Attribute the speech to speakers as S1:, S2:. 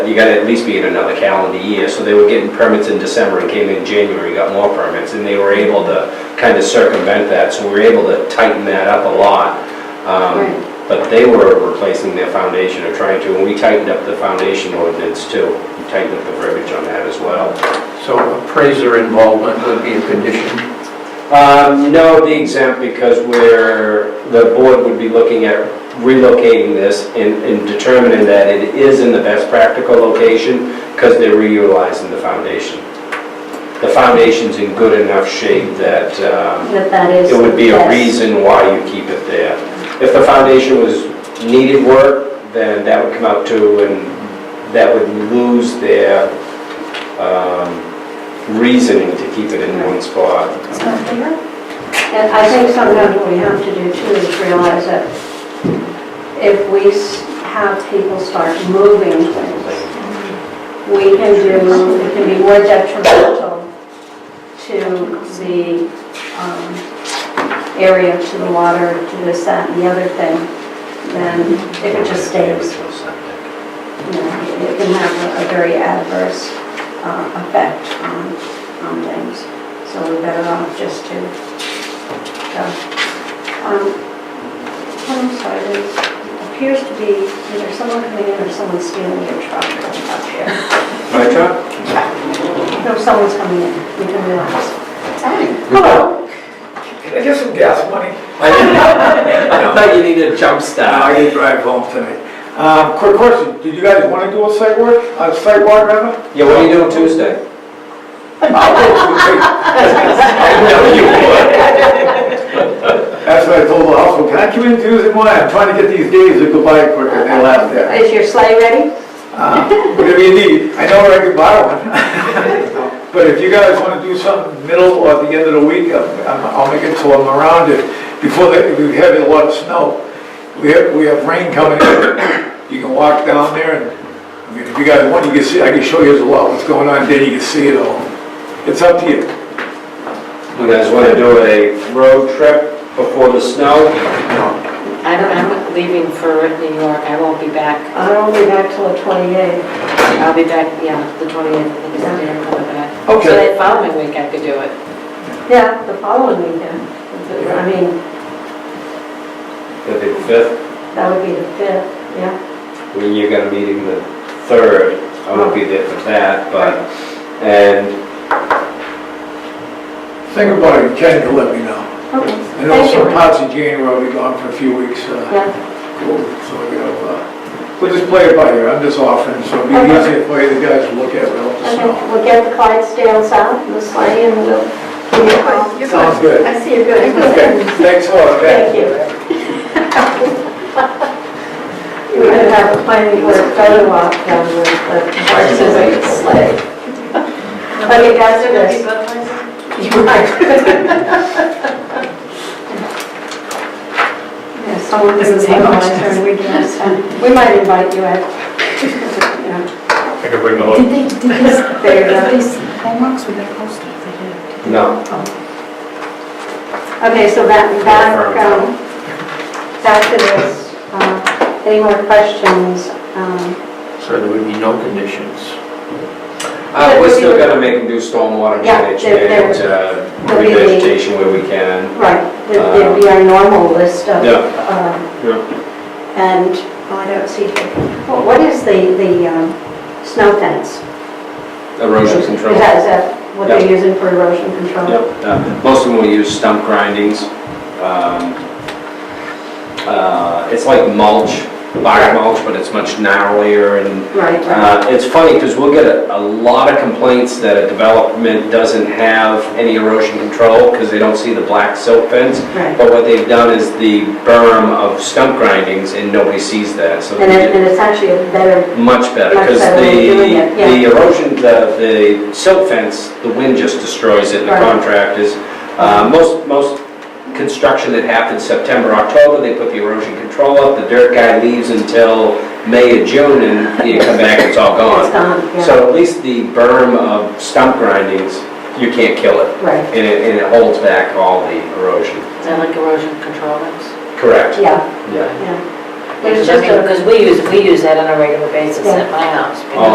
S1: You gotta at least be in another calendar year, so they were getting permits in December and came in January, got more permits, and they were able to kind of circumvent that, so we were able to tighten that up a lot. Um,
S2: Right.
S1: But they were replacing their foundation or trying to, and we tightened up the foundation ordinance too. We tightened up the verbiage on that as well.
S3: So appraiser involvement would be a condition.
S1: Um, No, it'd be exempt because we're, the board would be looking at relocating this and and determining that it is in the best practical location because they're reutilizing the foundation. The foundation's in good enough shape that um,
S2: That that is.
S1: it would be a
S2: yes.
S1: reason why you keep it there. If the foundation was needed work, then that would come out too, and that would lose their um, reasoning to keep it in one spot.
S2: And I think sometimes what we have to do too is realize that if we s- have people start moving things, we can do, it can be more detrimental to the um, area, to the water, to this, that, and the other thing, than if it just stays. you know, It can have a very adverse uh, effect on, on things. So we're better off just to, go. Um, I'm sorry, there appears to be either someone coming in or someone stealing your truck up here.
S1: My truck?
S2: No, someone's coming in, you can realize.
S3: Hello. Can I get some gas money?
S1: I thought you needed a jump
S3: I
S1: start.
S3: can drive home tonight. Um, Quick question, did you guys want to do a site work, a site walk rather?
S1: Yeah, what are you doing Tuesday?
S3: I know you would. That's what I told the hospital, can I come in Tuesday morning? I'm trying to get these days to go by quicker than they last there.
S2: Is your sleigh ready?
S3: Uh, Whatever you need, I know where I could borrow one. But if you guys want to do something middle or at the end of the week, I'm- I'm- I'll make it so I'm around it. Before that, we have a lot of snow. We have, we have rain coming in. You can walk down there and, I mean, if you guys want, you can see, I can show you a lot what's going on, then you can see it all. It's up to you.
S1: You guys want to do a road trip before the snow?
S4: I don't, I'm leaving for New York, I won't be back.
S2: I don't be back till the 28th.
S4: I'll be back, yeah, the 28th, I think is the day I'm coming back. So
S3: Okay.
S4: that following week I could do it.
S2: Yeah, the following weekend. I mean,
S1: The big fifth,
S2: that would be the 5th, yeah.
S1: when you got a meeting the third, I won't be there for that, but, and
S3: Think about it, Ken will let me know.
S2: Okay,
S3: I know
S2: thank you.
S3: some parts of January will be gone for a few weeks. uh,
S2: Yeah.
S3: Cool, so we have, uh, we'll just play it by ear, I'm just offering, so it'll be easier for you, the guys to look at, we'll just
S2: Okay,
S3: know.
S2: we'll get the Clydesdales out, the sleigh, and we'll give you a call.
S3: Sounds good.
S2: I see you're good.
S3: Okay, thanks a lot,
S2: Thank
S3: okay?
S2: you. We could have a planning board photo op down with the horses and the sleigh. Okay, guys, do this. You might. Yeah, someone
S4: Doesn't
S2: can
S4: take much.
S2: organize her, we can just, um, We might invite you, Ed. Yeah,
S5: I can bring the whole,
S6: Did they, did these,
S2: There you go.
S6: these homeworks were they posted? They did.
S1: no,
S2: Okay, so back, back, um, back to this, uh, any more questions? Um,
S7: So there would be no conditions.
S1: Uh, we're still gonna make them do stormwater
S2: Yeah, they're- they're-
S1: management, uh,
S2: they'll be the-
S1: revegetation where we can.
S2: Right, there- there'd be our normal list of,
S1: Yeah.
S2: um,
S1: Yeah.
S2: and, oh, I don't see, what what is the, the um, snow fence?
S1: Erosion control.
S2: Is that, is that what
S1: Yeah.
S2: they're using for erosion control?
S1: Yep, uh, most of them will use stump grindings. Um, uh, It's like mulch, bark mulch, but it's much gnarlier and
S2: Right, right,
S1: uh, it's funny because we'll get a a lot of complaints that a development doesn't have any erosion control because they don't see the black silk fence.
S2: right.
S1: But what they've done is the berm of stump grindings and nobody sees that, so.
S2: And
S1: they
S2: it,
S1: get
S2: and it's actually a better,
S1: Much better
S2: Much
S1: because
S2: better
S1: the,
S2: way of doing it, yeah.
S1: the erosion, the, the silk fence, the wind just destroys it and the
S2: Right.
S1: contractors. uh, Most, most construction that happens September, October, they put the erosion control up, the dirt guy leaves until May or June and you come back, it's all gone.
S2: it's gone, yeah,
S1: Oh, So at least the berm of stump grindings, you can't kill it,
S2: right,
S1: and it, and it holds back all the erosion.
S4: Is that like erosion control rooms?
S1: Correct.
S2: yeah,
S1: Yeah.
S2: yeah. There's
S4: Because I
S2: just
S4: mean,
S2: a-
S4: because we use, we use that on a regular basis
S2: Yeah.
S4: at my house.
S1: Oh,